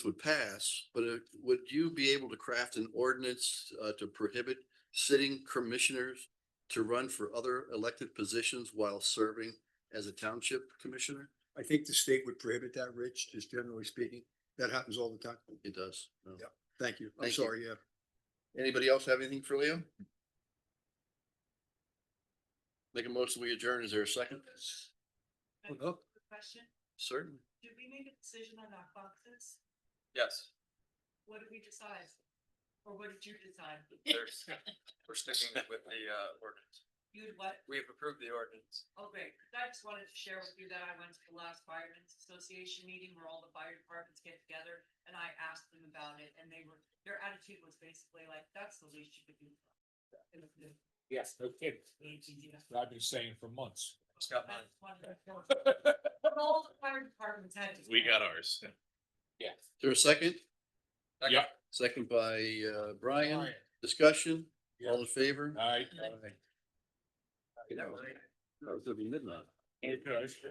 would pass, but uh, would you be able to craft an ordinance uh, to prohibit sitting commissioners to run for other elected positions while serving as a township commissioner? I think the state would prohibit that, Rich, just generally speaking. That happens all the time. It does. no. Yeah. Thank you. I'm Thank you. sorry, yeah. Anybody else have anything for Leo? Make a motion, we adjourn. Is there a second? Well, no. Question, Certainly. did we make a decision on knock boxes? Yes, What did we decide? Or what did you decide? there's, we're sticking with the uh ordinance. You'd what? We've approved the ordinance. Oh, great. I just wanted to share with you that I went to the last firemen's association meeting where all the fire departments get together and I asked them about it and they were, their attitude was basically like, that's the least you could do. And it's- Yes, no kidding. Yeah. I've been saying for months. It's got I mine. just wanted to know. But all the fire departments had. to- ours. Yes. Is there a second? Yeah. Second by uh, Brian. Discussion? All in favor? All right. That was gonna be midnight. Okay.